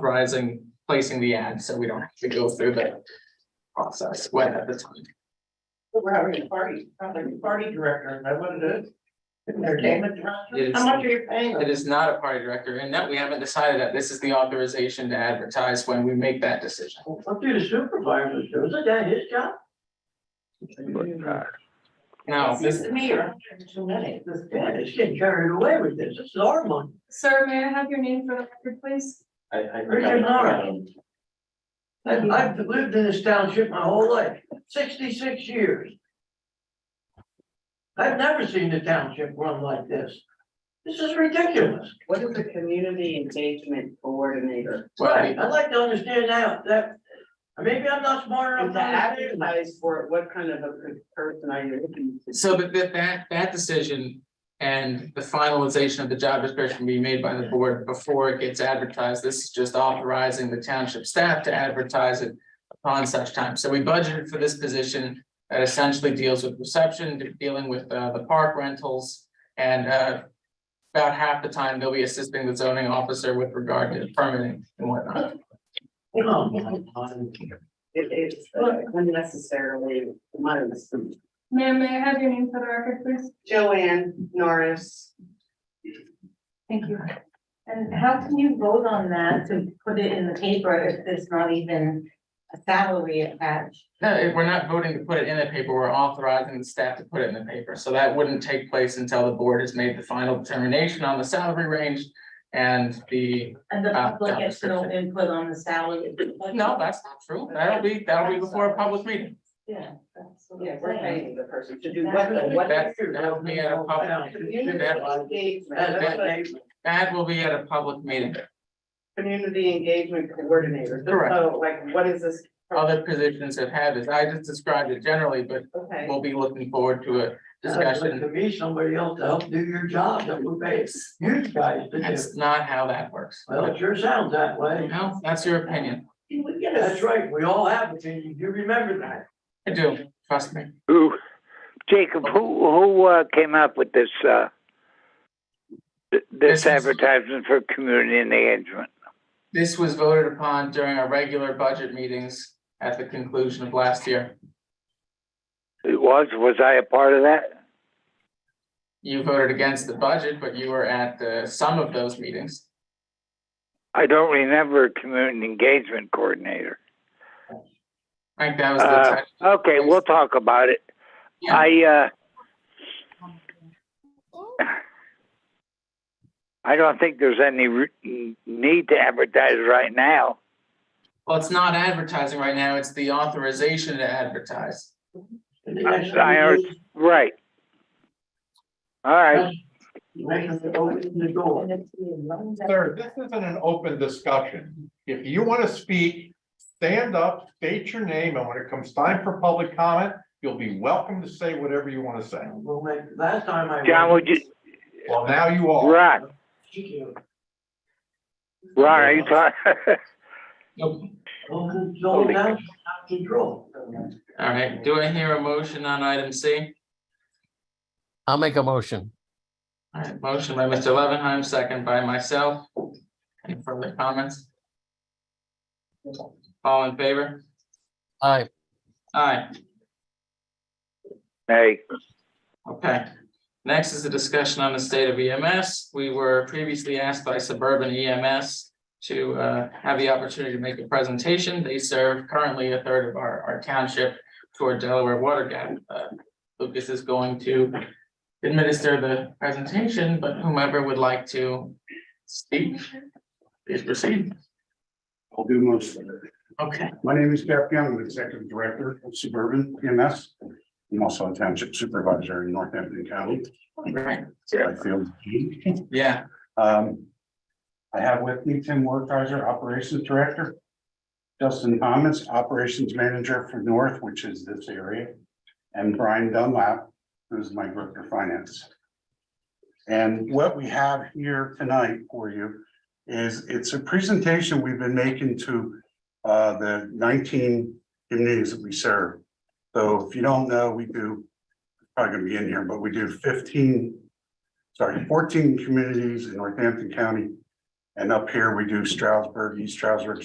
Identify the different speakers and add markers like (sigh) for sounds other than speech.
Speaker 1: authorizing placing the ad, so we don't have to go through the process when at the time.
Speaker 2: We're having a party, sounds like a party director, is that what it is? Entertainment
Speaker 1: It
Speaker 2: director,
Speaker 1: is.
Speaker 2: how much are you paying
Speaker 1: It
Speaker 2: them?
Speaker 1: is not a party director, and that we haven't decided that this is the authorization to advertise when we make that decision.
Speaker 2: Up to the supervisor, isn't that his job?
Speaker 1: Now,
Speaker 2: Seems
Speaker 1: this,
Speaker 2: to me, you're hiring too many, this guy is getting carried away with this, this is our money.
Speaker 3: Sir, may I have your name for the record, please?
Speaker 4: I, I.
Speaker 2: Richard Mara. I've, I've lived in this township my whole life, sixty-six years. I've never seen a township run like this. This is ridiculous.
Speaker 5: What is a community engagement coordinator?
Speaker 1: well,
Speaker 2: Right, I'd like to understand now that, maybe I'm not smart
Speaker 5: And
Speaker 2: enough
Speaker 5: to
Speaker 2: to understand. that.
Speaker 5: advertise for it, what kind of a person are you looking to?
Speaker 1: so that, that, that, that decision and the finalization of the job description will be made by the board before it gets advertised. This is just authorizing the township staff to advertise it upon such time. So we budgeted for this position that essentially deals with reception, dealing with, uh, the park rentals and, uh, about half the time they'll be assisting the zoning officer with regard to permitting and whatnot.
Speaker 2: Oh, my God.
Speaker 5: It is unnecessarily months.
Speaker 3: Ma'am, may I have your name for the record, please?
Speaker 5: Joanne Norris,
Speaker 6: Thank you. And how can you vote on that to put it in the paper if there's not even a salary attached?
Speaker 1: No, it- we're not voting to put it in the paper, we're authorizing the staff to put it in the paper, so that wouldn't take place until the board has made the final determination on the salary range. And the,
Speaker 6: And the
Speaker 5: Uh,
Speaker 1: Ah,
Speaker 6: public gets no
Speaker 1: job
Speaker 6: input on the salary.
Speaker 1: no, that's not true, that'll be, that'll be before a public meeting,
Speaker 6: Yeah. that's what I'm
Speaker 5: yeah, we're
Speaker 6: saying.
Speaker 5: paying the person to do what, the- what.
Speaker 1: That- that'll be at a public-
Speaker 5: Community engagement, that's what-
Speaker 2: That's-
Speaker 1: that will be at a public meeting.
Speaker 5: community engagement coordinator,
Speaker 1: Correct.
Speaker 5: so like, what is this?
Speaker 1: Other positions have had this, I just described it generally, but
Speaker 5: Okay,
Speaker 1: we'll be looking forward to a
Speaker 2: that's like To
Speaker 1: discussion,
Speaker 2: me, somebody else to help do your job that we pay you guys to do.
Speaker 1: that's not how that works.
Speaker 2: Well, it sure sounds that way.
Speaker 1: No, that's your opinion,
Speaker 5: Can we get a-
Speaker 2: That's right, we all have opinions, you remember that.
Speaker 1: I do, trust me,
Speaker 7: Who, Jacob, who, who, uh, came up with this, uh, th-
Speaker 1: This is-
Speaker 7: this advertisement for community engagement?
Speaker 1: this was voted upon during our regular budget meetings at the conclusion of last year.
Speaker 7: It was, was I a part of that?
Speaker 1: You voted against the budget, but you were at the, some of those meetings.
Speaker 7: I don't remember a community engagement coordinator.
Speaker 1: I think that was
Speaker 7: Uh,
Speaker 1: the.
Speaker 7: okay, we'll talk about it.
Speaker 1: Yeah.
Speaker 7: I, uh, I don't think there's any re- need to advertise right now.
Speaker 1: Well, it's not advertising right now. It's the authorization to advertise.
Speaker 2: And the next
Speaker 7: I- I
Speaker 2: thing you
Speaker 7: Right. All right,
Speaker 2: do, make them open the door.
Speaker 4: Sir, this isn't an open discussion. If you want to speak, stand up, state your name, and when it comes time for public comment, you'll be welcome to say whatever you want to say.
Speaker 2: We'll make, last time I.
Speaker 7: John, would you,
Speaker 4: Well, now you are.
Speaker 7: Ron, Ron, are you talking?
Speaker 2: Well, "Oh, it's all down, out of control.
Speaker 1: All right, do I hear a motion on item C?
Speaker 8: I'll make a motion.
Speaker 1: All right, motion by Mr. Levenheim, second by myself. Any further comments? All in favor?
Speaker 8: Aye.
Speaker 1: Aye,
Speaker 7: (laughs) Hey,
Speaker 1: okay. Next is a discussion on the state of EMS. We were previously asked by Suburban EMS to uh, have the opportunity to make a presentation. They serve currently a third of our, our township toward Delaware Water Gap. Uh, Lucas is going to administer the presentation, but whomever would like to speak, please proceed.
Speaker 9: I'll do most of it.
Speaker 1: Okay.
Speaker 9: My name is Jeff Young, I'm the Executive Director of Suburban EMS. I'm also a Township Supervisor in Northampton County.
Speaker 1: Right,
Speaker 9: I feel.
Speaker 1: yeah,
Speaker 9: Um, I have with me Tim Wertheiser, Operations Director. Justin Thomas, Operations Manager for North, which is this area. And Brian Dunlap, who's my Director of Finance. And what we have here tonight for you is it's a presentation we've been making to uh, the nineteen communities that we serve. So if you don't know, we do, probably gonna be in here, but we do fifteen sorry, fourteen communities in Northampton County. And up here, we do Stroudsburg, East Stroudsburg,